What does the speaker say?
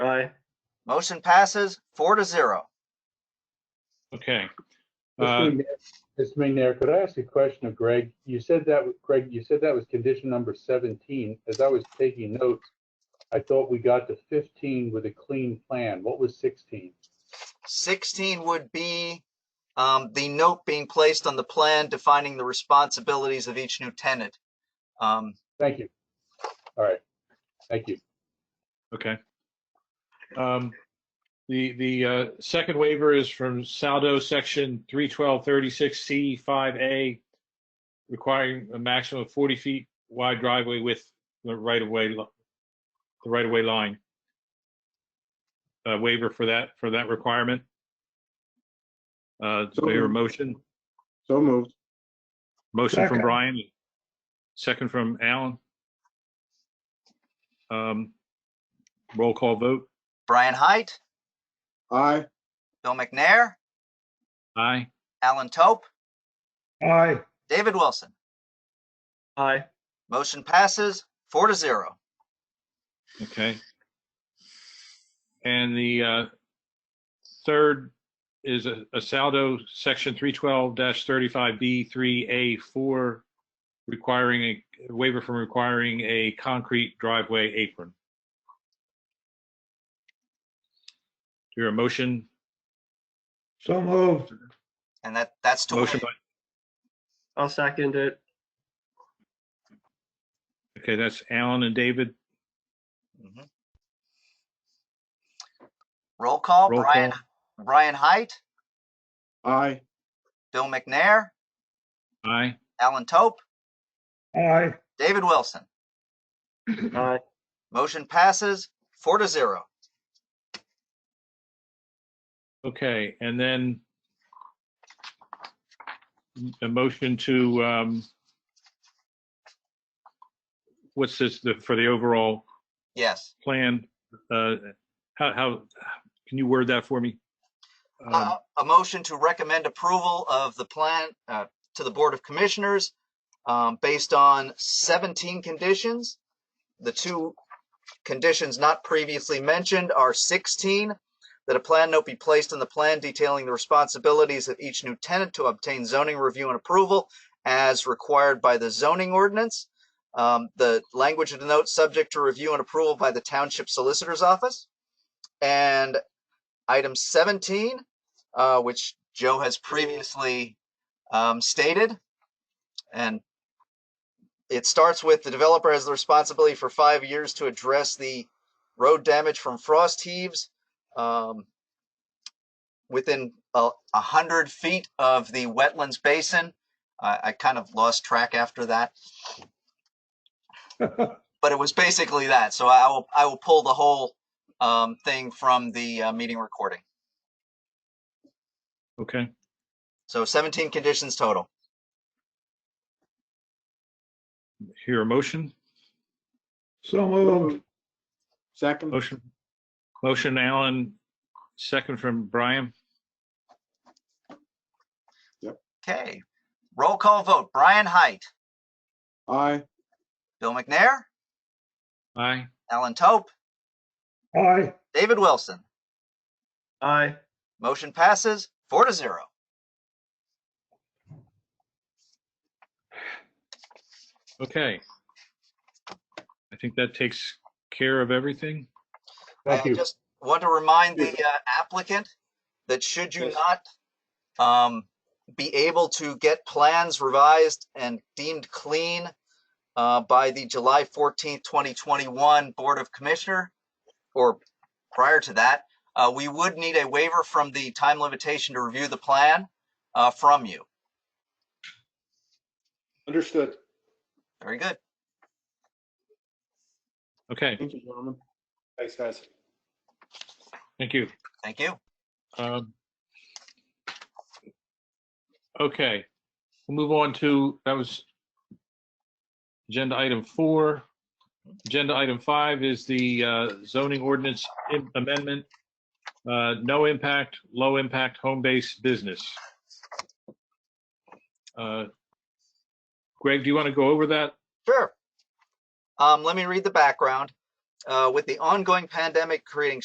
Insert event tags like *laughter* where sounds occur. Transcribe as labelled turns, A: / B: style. A: Motion passes four to zero.
B: Okay. Uh,
C: Mr. McNair, could I ask a question of Greg? You said that, Greg, you said that was condition number 17. As I was taking notes, I thought we got to 15 with a clean plan. What was 16?
A: 16 would be um, the note being placed on the plan defining the responsibilities of each new tenant. Um,
C: Thank you. All right. Thank you.
B: Okay. Um, The, the uh, second waiver is from Saldo, Section 31236C5A, requiring a maximum of 40 feet wide driveway with the right-of-way, li- the right-of-way line. Uh, Waiver for that, for that requirement. Uh, Do we hear a motion?
D: So moved.
B: Motion from
E: Second.
B: Brian, second from Alan. Um, Roll call vote.
A: Brian Height,
D: Aye.
A: Bill McNair,
B: Aye.
A: Alan Tope,
E: Aye.
A: David Wilson.
E: Aye.
A: Motion passes four to zero.
B: Okay. And the uh, third is a a Saldo, Section 312-35B3A4, requiring a waiver from requiring a concrete driveway apron. Do you hear a motion?
E: So moved.
A: And that, that's to
B: Motion
A: waive.
B: by,
F: I'll second it.
B: okay, that's Alan and David.
A: Mhm. Roll call,
B: Roll
A: Brian,
B: call.
A: Brian Height,
E: *laughs*
D: Aye.
A: Bill McNair,
B: Aye.
A: Alan Tope,
E: Aye.
A: David Wilson.
F: Aye.
A: Motion passes four to zero.
B: Okay, and then a motion to, um, what's this, the- for the overall
A: Yes.
B: plan? Uh, How, how, can you word that for me? Um,
A: Uh, A motion to recommend approval of the plan uh, to the Board of Commissioners um, based on 17 conditions. The two conditions not previously mentioned are 16, that a plan note be placed in the plan detailing the responsibilities of each new tenant to obtain zoning review and approval as required by the zoning ordinance. Um, The language of the note, subject to review and approval by the Township Solicitor's Office. And item 17, uh, which Joe has previously um, stated. And it starts with the developer has the responsibility for five years to address the road damage from frost heaves um, within a, a hundred feet of the wetlands basin. I, I kind of lost track after that, but it was basically that. So I will I will pull the whole um, thing from the uh, meeting recording.
B: Okay,
A: So 17 conditions total.
B: here a motion,
E: So moved.
D: Second.
B: motion, motion Alan, second from Brian.
A: Okay. Roll call vote. Brian Height,
D: Aye.
A: Bill McNair,
B: Aye.
A: Alan Tope,
E: Aye.
A: David Wilson.
F: Aye.
A: Motion passes four to zero.
B: Okay. I think that takes care of everything.
C: Thank
A: I
C: you.
A: just want to remind the uh, applicant that should you not um, be able to get plans revised and deemed clean uh, by the July 14th, 2021 Board of Commissioner, or prior to that, uh, we would need a waiver from the time limitation to review the plan uh, from you.
D: Understood.
A: Very good.
B: Okay,
D: Thank you, gentlemen. Thanks, guys.
B: thank you.
A: Thank you.
B: Um, Okay, we'll move on to, that was agenda item four. Agenda item five is the uh, zoning ordinance im- amendment. uh, No impact, low impact, home-based business. Uh, Greg, do you want to go over that?
A: Sure. Um, let me read the background. Uh, with the ongoing pandemic creating